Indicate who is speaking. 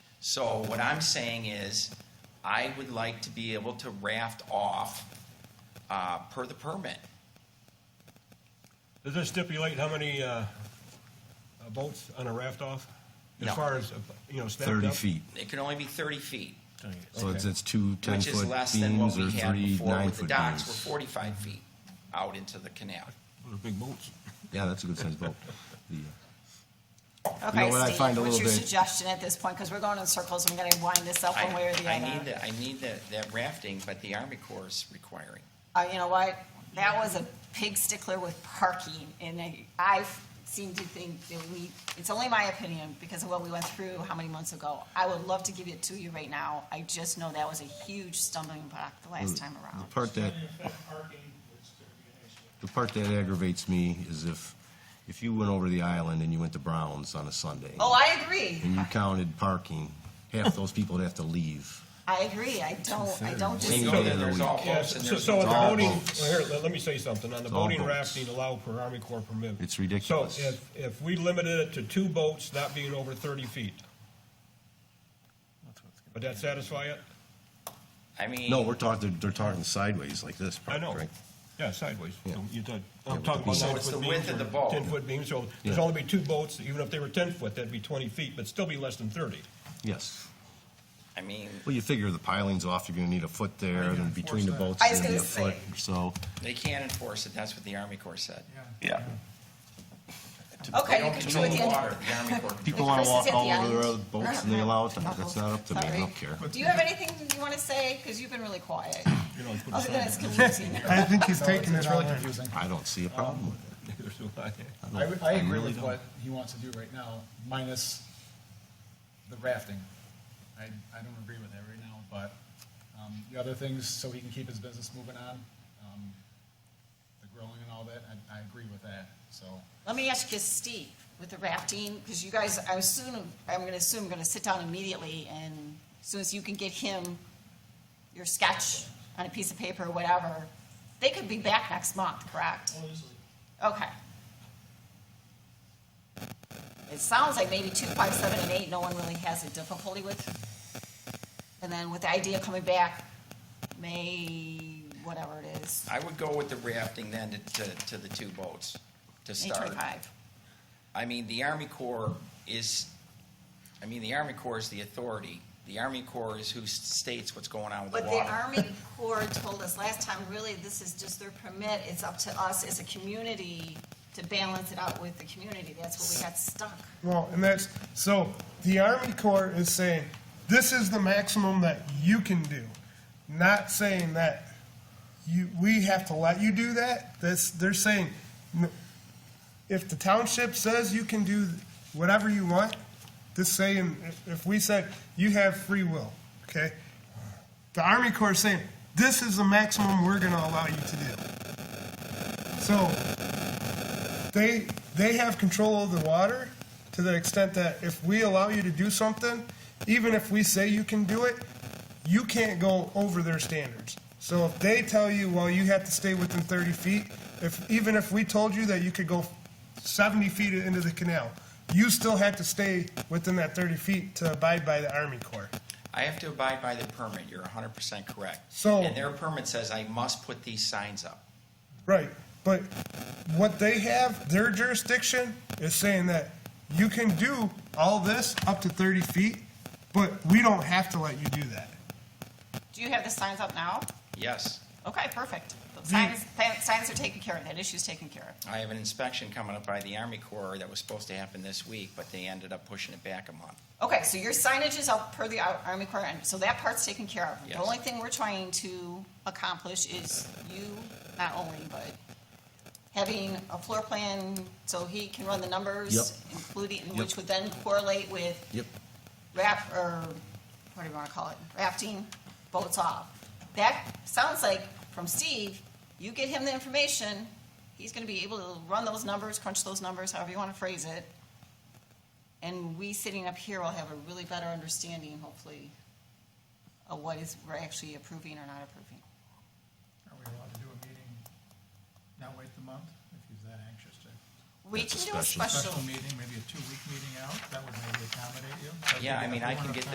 Speaker 1: So what I'm saying is, I would like to be able to raft off, uh, per the permit.
Speaker 2: Does this stipulate how many, uh, uh, boats on a raft off?
Speaker 1: No.
Speaker 2: As far as, uh, you know, stacked up?
Speaker 3: 30 feet.
Speaker 1: It can only be thirty feet,
Speaker 3: So it's, it's two 10
Speaker 1: which is
Speaker 3: foot
Speaker 1: less than what
Speaker 3: beams
Speaker 1: we
Speaker 3: or
Speaker 1: had
Speaker 3: three
Speaker 1: before
Speaker 3: 9
Speaker 1: with the
Speaker 3: foot
Speaker 1: docks, were
Speaker 3: beams.
Speaker 1: forty-five feet out into the canal.
Speaker 2: Those are Big boats.
Speaker 3: Yeah, that's a good sized boat. The, uh,
Speaker 4: Okay,
Speaker 3: what I
Speaker 4: Steve,
Speaker 3: find a
Speaker 4: what's
Speaker 3: little
Speaker 4: your
Speaker 3: bit-
Speaker 4: suggestion at this point? Because we're going in circles, I'm gonna wind this up
Speaker 1: I,
Speaker 4: one way or the
Speaker 1: I need
Speaker 4: other.
Speaker 1: that, I need that, that rafting, but the Army Corps is requiring.
Speaker 4: Uh, you know what? That was a pig stickler with parking, and I, I seem to think that we, it's only my opinion, because of what we went through how many months ago. I would love to give it to you right now, I just know that was a huge stumbling block the last time
Speaker 3: Mm. uh, The
Speaker 4: around.
Speaker 3: part that, the part that aggravates me is if, if you went over the island and you went to Brown's on a Sunday.
Speaker 4: Oh, I agree,
Speaker 3: And you counted parking, half those people would have to leave.
Speaker 4: I agree, I don't, I don't
Speaker 3: Two-thirds.
Speaker 1: You
Speaker 4: disagree.
Speaker 1: go there, there's all
Speaker 2: Yeah,
Speaker 1: boats and
Speaker 2: so,
Speaker 1: there's.
Speaker 2: so on the
Speaker 3: all
Speaker 2: boating,
Speaker 3: boats.
Speaker 2: well, here, let, let me say something, on the
Speaker 3: It's all
Speaker 2: boating
Speaker 3: boats.
Speaker 2: rafting allowed per Army Corps permit.
Speaker 3: It's ridiculous.
Speaker 2: So if, if we limited it to two boats not being over thirty feet, would that satisfy it?
Speaker 1: I mean.
Speaker 3: No, we're talking, they're talking sideways like this.
Speaker 2: I know,
Speaker 3: right?
Speaker 2: yeah, sideways,
Speaker 3: Yeah.
Speaker 2: you did,
Speaker 3: Yeah,
Speaker 2: I'm
Speaker 3: with
Speaker 2: talking
Speaker 3: the
Speaker 2: about
Speaker 3: beams.
Speaker 1: So
Speaker 2: nine
Speaker 1: it's the
Speaker 2: foot
Speaker 1: width
Speaker 2: beams
Speaker 1: of the
Speaker 2: or
Speaker 1: boat.
Speaker 2: ten foot beams, so there's
Speaker 3: Yeah.
Speaker 2: only be two boats, even if they were ten foot, that'd be twenty feet, but still be less than thirty.
Speaker 3: Yes.
Speaker 1: I mean,
Speaker 3: Well, you figure the piling's off, you're gonna need a foot there,
Speaker 2: How do you
Speaker 3: and between the
Speaker 2: enforce
Speaker 3: boats,
Speaker 4: that? I was
Speaker 3: you need a
Speaker 4: gonna
Speaker 3: foot, so.
Speaker 1: they can't enforce it, that's what the Army Corps said.
Speaker 3: Yeah.
Speaker 1: They
Speaker 4: Okay, you
Speaker 1: don't
Speaker 4: can do it
Speaker 1: control
Speaker 4: at the
Speaker 1: the
Speaker 4: end.
Speaker 1: water, the Army Corps. controls
Speaker 3: People wanna
Speaker 4: Chris is
Speaker 3: walk
Speaker 4: at
Speaker 3: all
Speaker 4: the
Speaker 3: over their
Speaker 4: end.
Speaker 3: other boats, and they allow it, to that's not up to me, I don't care.
Speaker 4: Uh-huh. Sorry. Do you have anything you want to say? Because you've been really quiet.
Speaker 2: You know, it's put
Speaker 4: Other than it's
Speaker 2: aside.
Speaker 4: confusing.
Speaker 5: I think he's taking it all in.
Speaker 3: I don't see a problem with it.
Speaker 2: There's no lie.
Speaker 5: I, would- I agree
Speaker 3: really
Speaker 5: with
Speaker 3: don't.
Speaker 5: what he wants to do right now, minus the rafting. I, I don't agree with that right now, but, um, the other things, so he can keep his business moving on, um, the growing and all that, I, I agree with that, so.
Speaker 4: Let me ask you, Steve, with the rafting, because you guys, I assume, I'm going to assume, going to sit down immediately, and as soon as you can get him your sketch on a piece of paper, whatever, they could be back next month, correct? Okay. It sounds like maybe two, five, seven, and eight, no one really has a difficulty with. And then with the idea coming back, May, whatever it is,
Speaker 1: I would go with the rafting then to, to, to the two boats to
Speaker 4: May
Speaker 1: start.
Speaker 4: twenty-five.
Speaker 1: I mean, the Army Corps is, I mean, the Army Corps is the authority. The Army Corps is who s- states what's going on with the
Speaker 4: But the
Speaker 1: water.
Speaker 4: Army Corps told us last time, really, this is just their permit, it's up to us as a community to balance it out with the community, that's where we got stuck.
Speaker 6: Well, and that's, so the Army Corps is saying, this is the maximum that you can do, not saying that you, we have to let you do that. That's, they're saying, "No, if the township says you can do whatever you want, this saying, if- if we said, you have free will, okay? The Army Corps is saying, this is the maximum we're gonna allow you to do. So, they they have control of the water to the extent that if we allow you to do something, even if we say you can do it, you can't go over their standards. So if they tell you, well, you have to stay within 30 feet, if even if we told you that you could go 70 feet into the canal, you still have to stay within that 30 feet to abide by the Army Corps.
Speaker 1: I have to abide by the permit, you're hundred percent correct.
Speaker 6: So-
Speaker 1: And their permit says I must put these signs up.
Speaker 6: Right, but what they have, their jurisdiction is saying that you can do all this up to thirty feet, but we don't have to let you do that.
Speaker 4: Do you have the signs up now?
Speaker 1: Yes,
Speaker 4: Okay, perfect. The Signs, the signs are taken care of, that issue's taken care of.
Speaker 1: I have an inspection coming up by the Army Corps that was supposed to happen this week, but they ended up pushing it back a month.
Speaker 4: Okay, so your signage is up per the Ar- Army Corps, and so that part's taken care of.
Speaker 1: Yes.
Speaker 4: The only thing we're trying to accomplish is you, not only, but having a floor plan so he can run the numbers,
Speaker 3: Yep.
Speaker 4: including,
Speaker 3: Yep.
Speaker 4: which would then correlate with
Speaker 3: Yep.
Speaker 4: raft, or what do you wanna call it, rafting, boats off. That sounds like, from Steve, you get him the information, he's gonna be able to run those numbers, crunch those numbers, however you wanna phrase it. And we sitting up here will have a really better understanding, hopefully, of what is, we're actually approving or not approving.
Speaker 5: Are we allowed to do a meeting, now wait the month, if he's that anxious to?
Speaker 4: We
Speaker 3: That's a
Speaker 4: can do a
Speaker 1: Uh,
Speaker 3: special-
Speaker 4: special
Speaker 5: Special meeting, maybe a two-week meeting out, that would maybe accommodate you.
Speaker 1: Yeah, I mean, I can get